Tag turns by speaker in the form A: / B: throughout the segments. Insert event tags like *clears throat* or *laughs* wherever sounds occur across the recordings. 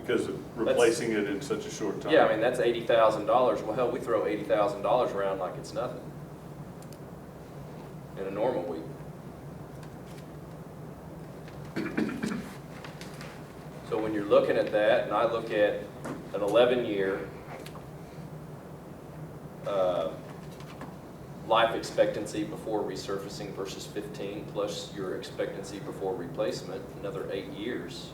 A: because of replacing it in such a short time.
B: Yeah, I mean, that's eighty thousand dollars. Well, hell, we throw eighty thousand dollars around like it's nothing in a normal week. So when you're looking at that, and I look at an eleven-year uh, life expectancy before resurfacing versus fifteen, plus your expectancy before replacement, another eight years,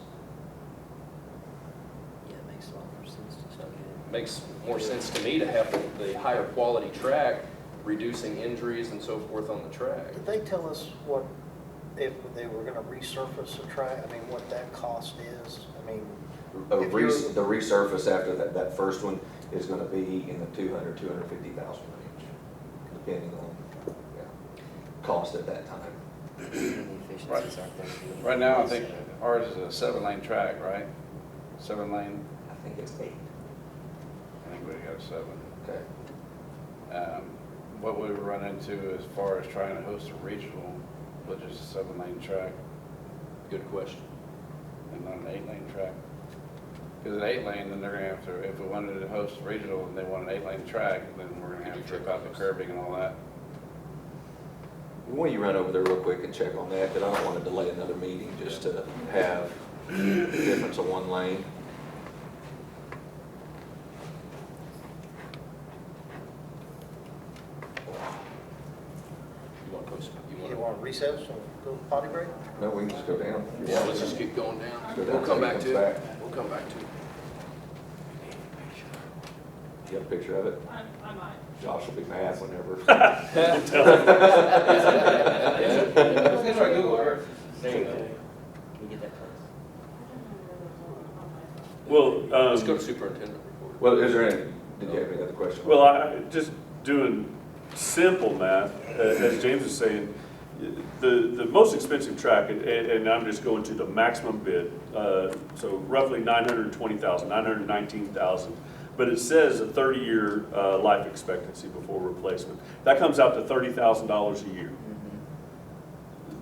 C: Yeah, it makes a lot more sense to
B: So
C: start
B: it Makes more sense to
D: *clears throat*
B: me to have the- the higher quality track, reducing injuries and so forth on the track.
E: Did they tell us what, if they were gonna resurface a track, I mean, what that cost is? I mean,
F: A
E: If you're-
F: res- The resurface after that, that first one is gonna be in the 200, 250,000 range, depending on, yeah, cost at that time.
C: Efficiencies aren't there.
D: Right now, I think ours is a seven-lane track, right? Seven lane,
F: I think it's eight.
D: I think we got seven.
F: Okay.
D: Um, What we run into as far as trying to host a regional, which is a seven-lane track
B: Good question.
D: and not an eight-lane track. Because an eight-lane, then they're gonna have to, if we wanted to host a regional and they want an eight-lane track, then we're gonna have to trip out the curbing and all that.
F: Why don't you run over there real quick and check on that, because I don't want to delay another meeting just to have a difference of one lane.
B: You want to post, you
E: you
B: want
E: wanna recess and go potty break?
F: No, we can just go down.
B: to, yeah, let's just keep going down.
F: Go down
B: We'll come
F: till he
B: back
F: comes
B: to it.
F: back.
B: We'll come back to it.
F: You have a picture of it?
G: I, I might.
F: Josh will be
A: *laughs*
F: mad whenever. *laughs*
B: *laughs*
D: It's like Google Earth.
C: Can you get that close?
A: Well, um,
B: Let's go to superintendent report.
F: Well, is there any, did you have any other question?
A: Well, I, just doing simple math, uh, as James was saying, the, the most expensive track, and, and I'm just going to the maximum bid, uh, so roughly nine hundred and twenty thousand, nine hundred and nineteen thousand. But it says a thirty-year, uh, life expectancy before replacement. That comes out to thirty thousand dollars a year.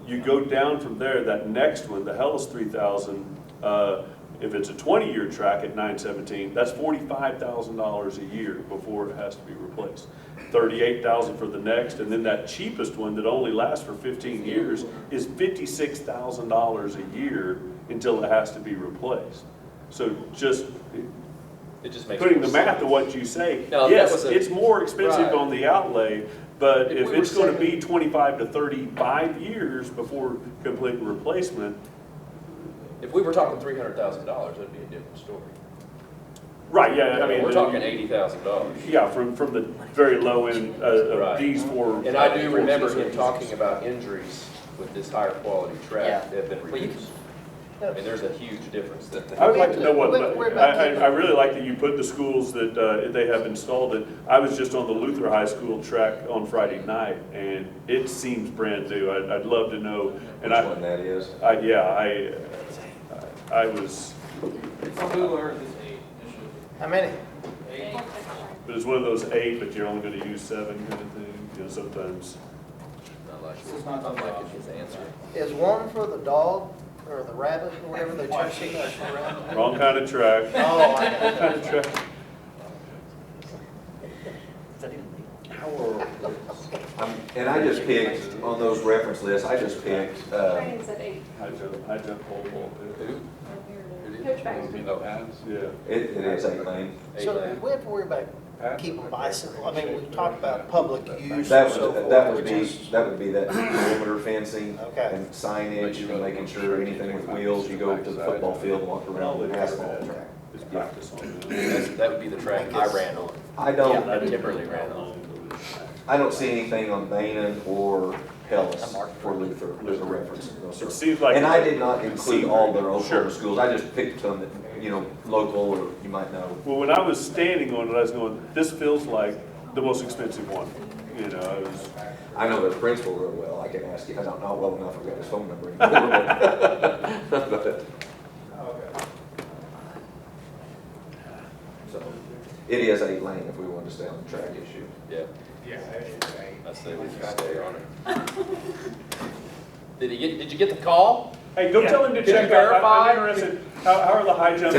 A: You go down from there, that next one, the Hellas three thousand, uh, if it's a twenty-year track at nine seventeen, that's forty-five thousand dollars a year before it has to be replaced. Thirty-eight thousand for the next, and then that cheapest one that only lasts for fifteen years is fifty-six thousand dollars a year until it has to be replaced. So just
B: It just makes.
A: putting
B: more
A: the math
B: sense.
A: to what you say,
B: Now, if that
A: yes,
B: was a-
A: it's more expensive
B: Right.
A: on the outlay, but
B: If
A: if
B: we
A: it's
B: were
A: gonna be
B: saying-
A: twenty-five to thirty-five years before complete replacement,
B: If we were talking three hundred thousand dollars, that'd be a different story.
A: right, yeah, I mean.
B: We're
A: the-
B: talking eighty thousand dollars.
A: Yeah, from, from the very low end uh, of
B: Right.
A: these four.
B: And I do
A: four
B: remember him
A: systems.
B: talking about injuries with this higher quality track that
C: Yeah.
B: have been
C: Well, you
B: reduced. I
E: No.
B: mean, there's a huge difference there.
A: I would like to know what,
E: We're- we're about
A: I, I, I really like that you put the schools that, uh, they have installed it. I was just on the Luther High School track on Friday night, and it seems brand new. I'd, I'd love to know.
F: Which
A: And I,
F: one that is?
A: I, yeah, I, I was,
H: It's on Google Earth, it's eight, it should be.
E: How many?
H: Eight.
A: but it's one of those eight, but you're only gonna use seven kind of thing, you know, sometimes.
B: Not like-
H: It's not on
B: Not
H: my-
B: like his answer.
E: Is one for the dog or the rabbit or whatever they chasing us around?
A: Wrong kind of track.
E: *laughs* Oh, I
A: Kind of track.
C: Is that even legal?
F: Um, And I just picked, on those reference lists, I just picked, uh,
G: Train's at eight.
A: High jump, high jump pole vault.
B: Who?
G: Coach
D: Would be
G: Baxter.
D: no pads.
A: Yeah.
F: it, it is eight lane.
E: know. So do we have to worry about
D: Pads.
E: keeping bicycle, I mean, we talked about public use and
F: That
E: so
F: would,
E: forth.
F: that would
E: which
F: be,
E: is-
F: that would be that perimeter fencing
E: Okay.
F: and signage and making sure anything with wheels, you go to the football field, walk around the asphalt track.
A: It's practice on that.
B: That's- That would be the track I ran on.
F: I don't,
B: Yeah. I Timberly ran off.
F: I don't see anything on Bainan or Hellas
C: I marked
F: for Luther as a reference. No, sir.
A: It seems like.
F: And I did not include all their Oklahoma
A: Sure.
F: schools, I just picked some that, you know, local or you might know.
A: Well, when I was standing on it, I was going, this feels like the most expensive one, you know, I was,
F: I know the principal real well, I can ask you, I don't know well enough, I've got his phone number anymore. *laughs* but- but- So, it is eight lane if we want to stay on the track issue.
B: Yeah. Yeah. I say we just stay on *laughs* it. Did he get, did you get the call?
A: hey, go tell him to
B: Did you
A: check out, I'm-
B: verify?
A: I'm interested, how, how are the high jump